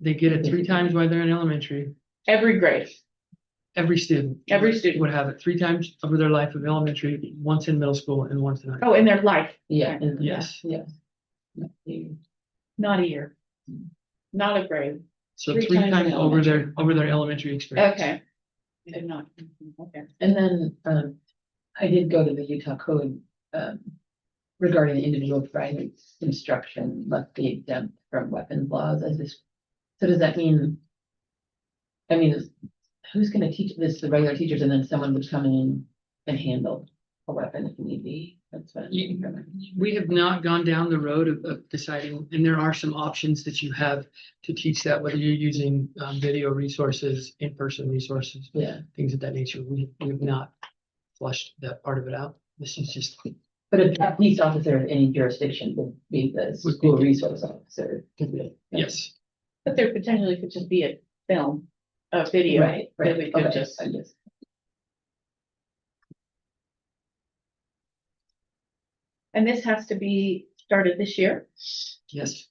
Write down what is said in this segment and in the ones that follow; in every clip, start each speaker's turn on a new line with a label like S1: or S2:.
S1: They get it three times while they're in elementary.
S2: every grade,
S1: Every student.
S2: Every student.
S1: Would have it three times over their life of elementary, once in middle school and once in high.
S2: oh, in their life,
S3: Oh, Yeah. and-
S1: Yes.
S3: Yeah. yeah.
S2: not a year. Not a grade,
S1: So
S3: Three
S1: three
S3: times
S1: times
S3: in
S1: over their, over their elementary experience.
S2: okay. And not, okay.
S3: And then, um, I did go to the Utah code, um, regarding the individual private instruction must be exempt from weapons laws, I just, so does that mean? I mean, is- who's gonna teach this, the regular teachers, and then someone would come in and handle a weapon if need be, that's what. I'm
S1: You-
S3: thinking.
S1: We have not gone down the road of, of deciding, and there are some options that you have to teach that, whether you're using, um, video resources, in-person resources,
S3: Yeah,
S1: things of that nature. We, we've not flushed that part of it out. This is just
S3: but a police officer of any jurisdiction would be the
S1: Would be-
S3: school resource officer.
S1: Yes,
S2: But there potentially could just be a film, a video,
S3: Right,
S2: that
S3: right,
S2: we could
S3: okay,
S2: just-
S3: I just.
S2: and this has to be started this year.
S1: yes.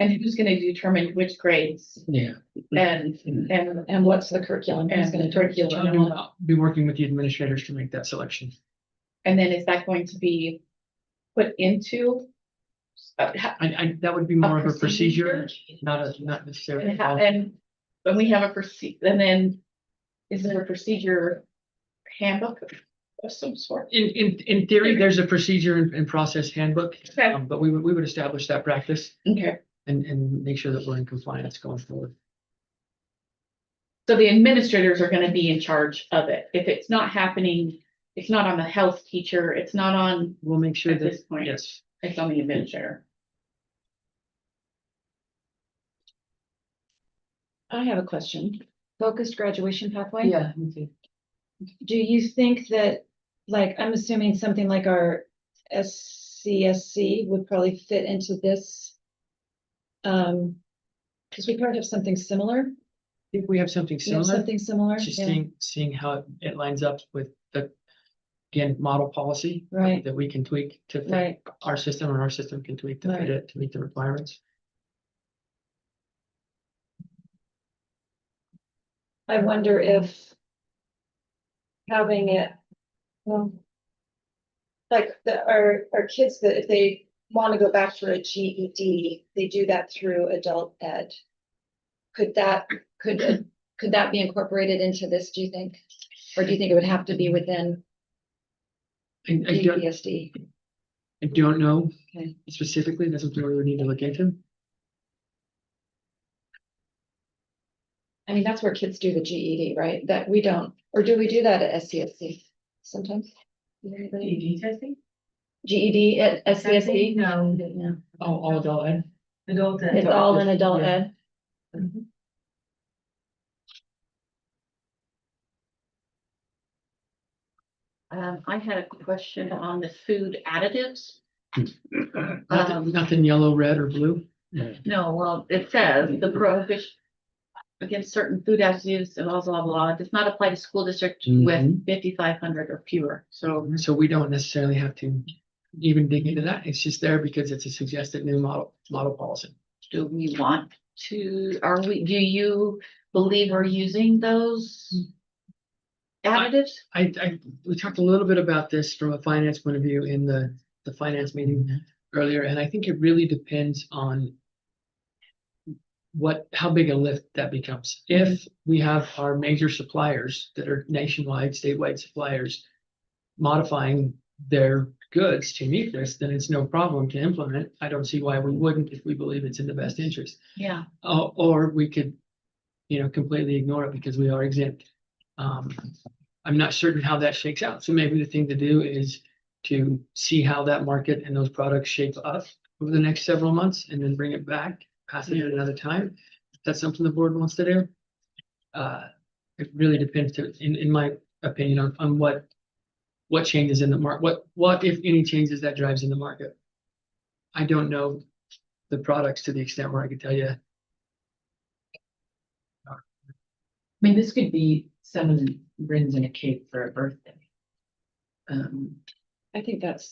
S2: And who's gonna determine which grades
S1: Yeah.
S2: and,
S1: Mm-hmm.
S2: and,
S4: And what's the curriculum? Who's
S2: And
S4: gonna
S2: the
S4: curriculum? and all that?
S1: Be working with the administrators to make that selection.
S2: and then is that going to be put into? uh, ha-
S1: I, I, that would be more of a
S2: procedure?
S1: procedure, not a, not necessarily.
S2: And how, and when we have a proceed, and then is there a procedure handbook of some sort?
S1: In, in, in theory, there's a procedure and, and process handbook,
S2: Okay.
S1: um, but we would, we would establish that practice
S2: Okay,
S1: and, and make sure that we're in compliance going forward.
S2: so the administrators are gonna be in charge of it. If it's not happening, it's not on the health teacher, it's not on,
S1: We'll make sure
S2: At
S1: that,
S2: this point.
S1: yes,
S2: it's on the administrator.
S4: I have a question. Focused graduation pathway?
S3: Yeah, me too.
S4: Do you think that, like, I'm assuming something like our SCSC would probably fit into this? Um, because we probably have something similar.
S1: if we have something
S4: We
S1: similar,
S4: have something similar.
S1: just
S4: yeah.
S1: seeing, seeing how it- it lines up with the, again, model policy.
S4: Right.
S1: That we can tweak to fit
S4: Right,
S1: our system or our system can tweak to fit
S4: Right.
S1: it to meet the requirements.
S4: I wonder if having it, well, like the, our, our kids, that if they want to go back for a GED, they do that through adult ed. Could that, could, could that be incorporated into this, do you think? Or do you think it would have to be within E
S1: And I don't,
S4: DPSD?
S1: I don't know
S4: Okay.
S1: specifically, that's something we would need to look into.
S4: I mean, that's where kids do the GED, right? That we don't, or do we do that at SCSC sometimes? Anybody?
S3: ED testing?
S4: GED at SCSC?
S3: No, no.
S1: All, all adult ed.
S3: Adult.
S4: E? It's all in adult
S1: Yeah.
S4: ed?
S2: Um, I had a question on the food additives.
S1: Nothing,
S2: Um,
S1: nothing yellow, red or blue.
S2: No, well, it says the prohibition against certain food additives and blah, blah, blah, does not apply to school district with
S1: Mhm.
S2: fifty-five hundred or fewer, so.
S1: So we don't necessarily have to even dig into that. It's just there because it's a suggested new model, model policy.
S2: Do we want to, are we, do you believe we're using those? Additives?
S1: I, I, we talked a little bit about this from a finance point of view in the, the finance meeting earlier, and I think it really depends on what, how big a lift that becomes. If we have our major suppliers that are nationwide, statewide suppliers modifying their goods to meet this, then it's no problem to implement. I don't see why we wouldn't if we believe it's in the best interest.
S2: Yeah.
S1: Or, or we could, you know, completely ignore it because we are exempt. Um, I'm not certain how that shakes out. So maybe the thing to do is to see how that market and those products shape up over the next several months and then bring it back, pass it at another time. If that's something the board wants to do. Uh, it really depends to, in, in my opinion, on, on what, what changes in the market, what, what if any changes that drives in the market. I don't know the products to the extent where I could tell you
S3: I mean, this could be someone brings in a cake for a birthday. Um,
S4: I think that's